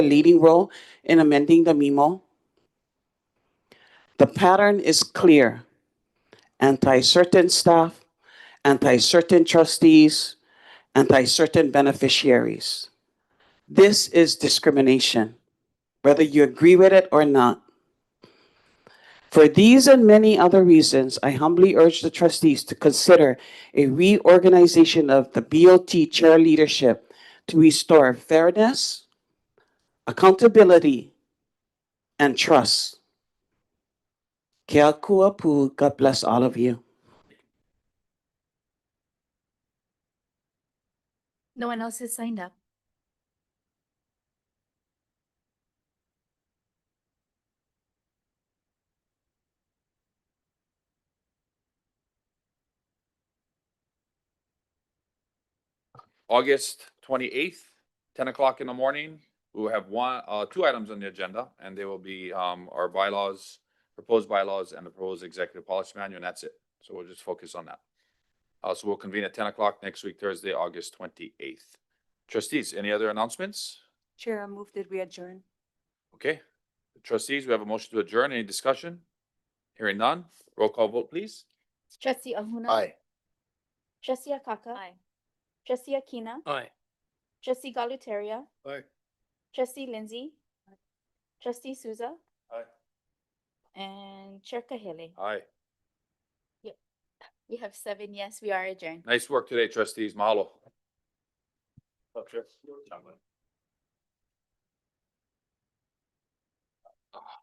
a leading role in amending the memo. The pattern is clear. Anti-certain staff, anti-certain trustees, anti-certain beneficiaries. This is discrimination, whether you agree with it or not. For these and many other reasons, I humbly urge the trustees to consider a reorganization of the BOT chair leadership to restore fairness, accountability, and trust. Kia kua pu. God bless all of you. No one else has signed up. August twenty-eighth, ten o'clock in the morning, we will have one, uh, two items on the agenda, and they will be, um, our bylaws, proposed bylaws and the proposed executive policy manual, and that's it. So we'll just focus on that. Uh, so we'll convene at ten o'clock next week, Thursday, August twenty-eighth. Trustees, any other announcements? Chair, I move that we adjourn. Okay, trustees, we have a motion to adjourn. Any discussion? Hearing none. Roll call vote, please. Trustee Ahuna. Trustee Akaka. Aye. Trustee Akina. Aye. Trustee Galutaria. Aye. Trustee Lindsay. Trustee Souza. Aye. And Chair Kahale. Aye. We have seven yes, we are adjourned. Nice work today, trustees. Mahalo.